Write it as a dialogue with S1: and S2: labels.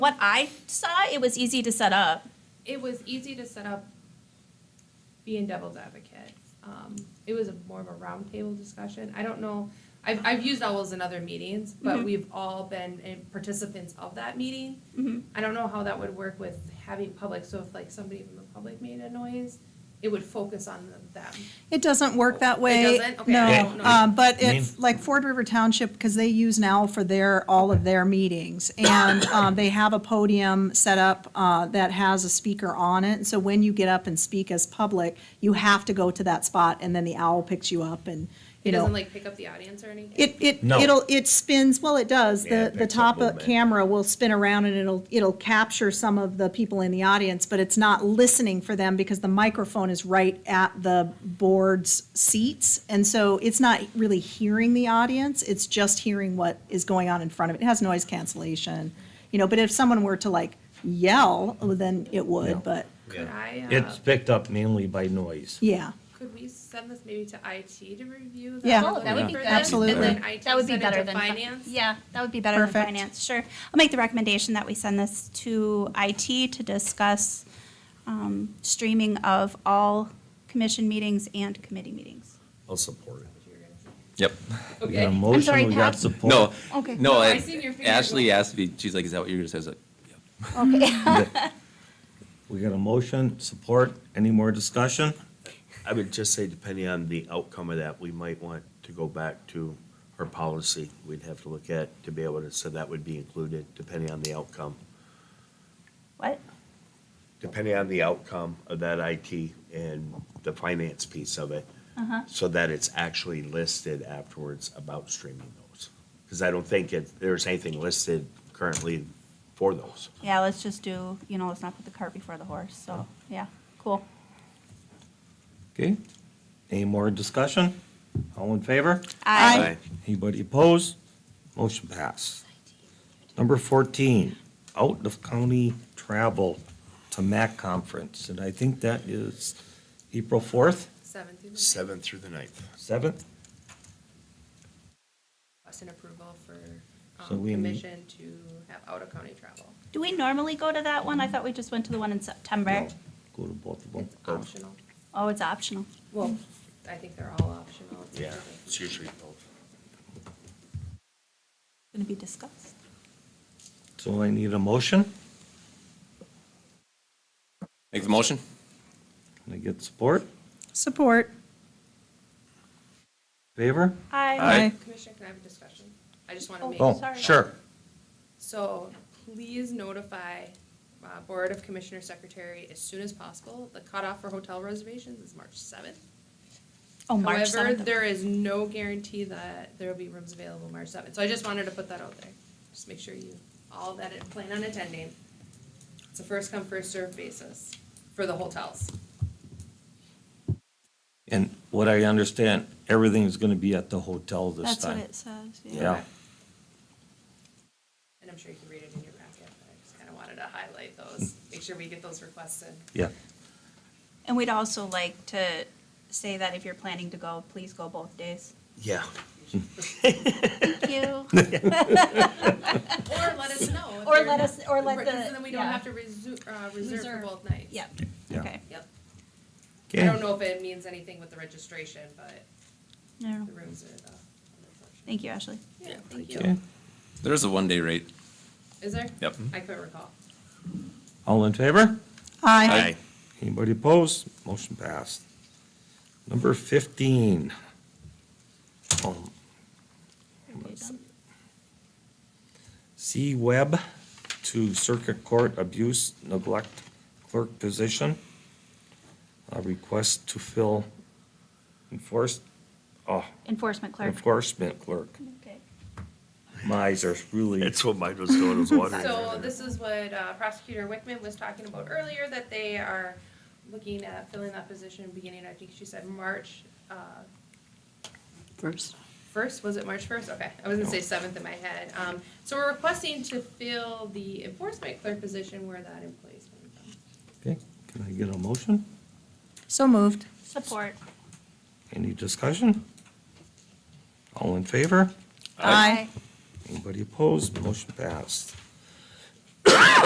S1: what I saw, it was easy to set up.
S2: It was easy to set up being devil's advocate. Um, it was a- more of a roundtable discussion. I don't know, I've, I've used owls in other meetings,
S1: Mm-hmm.
S2: but we've all been eh, participants of that meeting.
S1: Mm-hmm.
S2: I don't know how that would work with having public, so if like somebody from the public made a noise, it would focus on them.
S3: It doesn't work that way.
S2: doesn't? Okay,
S3: No,
S2: I don't know.
S3: um, but
S4: Name.
S3: if, like Ford River Township, because they use now for their, all of their meetings. And, um, they have a podium set up, uh, that has a speaker on it. So when you get up and speak as public, you have to go to that spot and then the owl picks you up and,
S2: It
S3: you know.
S2: doesn't like pick up the audience or anything?
S3: It, it,
S4: No.
S3: it'll, it spins, well, it does,
S4: Yeah, it
S3: the, the
S4: picks
S3: top
S4: up
S3: of
S4: movement.
S3: camera will spin around and it'll, it'll capture some of the people in the audience, but it's not listening for them because the microphone is right at the board's seats. And so it's not really hearing the audience, it's just hearing what is going on in front of it. It has noise cancellation, you know, but if someone were to like yell, then it
S4: Yeah.
S3: would, but,
S2: Could I, uh,
S4: It's picked up mainly by noise.
S3: yeah.
S2: could we send this maybe to IT to review? the
S3: Yeah.
S1: Oh, that would be
S2: for
S1: good.
S2: them,
S3: Absolutely.
S2: And then IT
S1: That would be
S2: send it
S1: better
S2: to
S1: than. fi-
S2: finance?
S1: Yeah, that would be better than
S3: Perfect.
S1: finance, sure. I'll make the recommendation that we send this to IT to discuss um, streaming of all commission meetings and committee meetings.
S5: I'll support it. Yep.
S4: We got a
S2: Okay.
S1: I'm sorry,
S4: motion, we got
S1: Pat.
S4: support.
S5: No,
S1: Okay.
S5: no,
S2: I
S5: I-
S2: seen your finger
S5: Ashley
S2: go up.
S5: asked me, she's like, is that what you're gonna say? I was like, "Yep."
S4: We got a motion, support, any more discussion?
S6: I would just say, depending on the outcome of that, we might want to go back to our policy. We'd have to look at, to be able to, so that would be included, depending on the outcome.
S1: What?
S6: Depending on the outcome of that IT and the finance piece of it.
S2: Uh-huh.
S6: So that it's actually listed afterwards about streaming those. Because I don't think it, there's anything listed currently for those.
S1: Yeah, let's just do, you know, let's not put the cart before the horse, so, yeah, cool.
S4: Okay, any more discussion? All in favor?
S1: I
S4: Anybody opposed? Motion passed. Number 14, out-of-county travel to MAC conference, and I think that is April 4th,
S2: Seven through the ninth.
S6: Seventh through the ninth.
S4: 7th?
S2: Request an approval for
S4: So
S2: um,
S4: we need-
S2: commission to have out-of-county travel.
S1: Do we normally go to that one? I thought we just went to the one in September.
S4: No, Go to both of them.
S2: It's optional.
S1: Oh, it's optional.
S2: Well, I think they're all optional.
S6: Yeah, it's usually both.
S1: Going to be discussed.
S4: So I need a motion,
S5: Make the motion?
S4: can I get support?
S3: Support.
S4: Favor?
S1: I
S5: Aye.
S2: Commissioner, can I have a discussion? I just want to make.
S4: Oh,
S1: Sorry.
S4: sure.
S2: So please notify uh, Board of Commissioner Secretary as soon as possible. The cutoff for hotel reservations is March 7th.
S1: Oh, March
S2: However,
S1: 7th.
S2: there is no guarantee that there will be rooms available March 7th. So I just wanted to put that out there. Just make sure you, all that plan on attending. It's a first come, first served basis for the hotels.
S4: And what I understand, everything's going to be at the hotel this
S1: That's what
S4: time.
S1: it says, yeah.
S4: Yeah,
S2: And I'm sure you can read it in your packet, but I just kind of wanted to highlight those, make sure we get those requests in.
S4: yeah.
S1: And we'd also like to say that if you're planning to go, please go both days.
S6: Yeah.
S1: Thank you.
S2: Or let us know. if
S1: Or
S2: you're
S1: let
S2: not-
S1: us- or let
S2: Right,
S1: the-
S2: 'cause Then we don't
S1: yeah.
S2: have to resu- uh, reserve for
S3: Reserve.
S2: both nights.
S1: Yeah,
S4: Yeah.
S1: okay.
S2: Yep. I
S4: Okay.
S2: don't know if it means anything with the registration, but
S1: I don't
S2: the
S1: know.
S2: rooms are the.
S1: Thank you, Ashley.
S2: Yeah, thank
S4: Okay.
S2: you.
S5: There's a one-day rate.
S2: Is there?
S5: Yep.
S2: I couldn't recall.
S4: All in favor?
S3: Aye.
S4: Anybody opposed? Motion passed. Number 15. um,
S1: Are we done?
S4: C. Webb to Circuit Court Abuse Neglect Clerk Position. A request to fill enforced, oh,
S1: Enforcement clerk.
S4: enforcement clerk.
S1: Okay.
S4: My eyes are really.
S6: That's what mine was doing, was wondering.
S2: So this is what uh, Prosecutor Wickman was talking about earlier, that they are looking at filling that position beginning, I think she said March, uh,
S3: First.
S2: First, was it March first? Okay, I was gonna say seventh in my head. Um, so we're requesting to fill the enforcement clerk position where that employee's coming from.
S4: Okay, can I get a motion?
S3: So moved.
S1: Support.
S4: Any discussion? All in favor?
S3: Aye.
S4: Anybody opposed? Motion passed.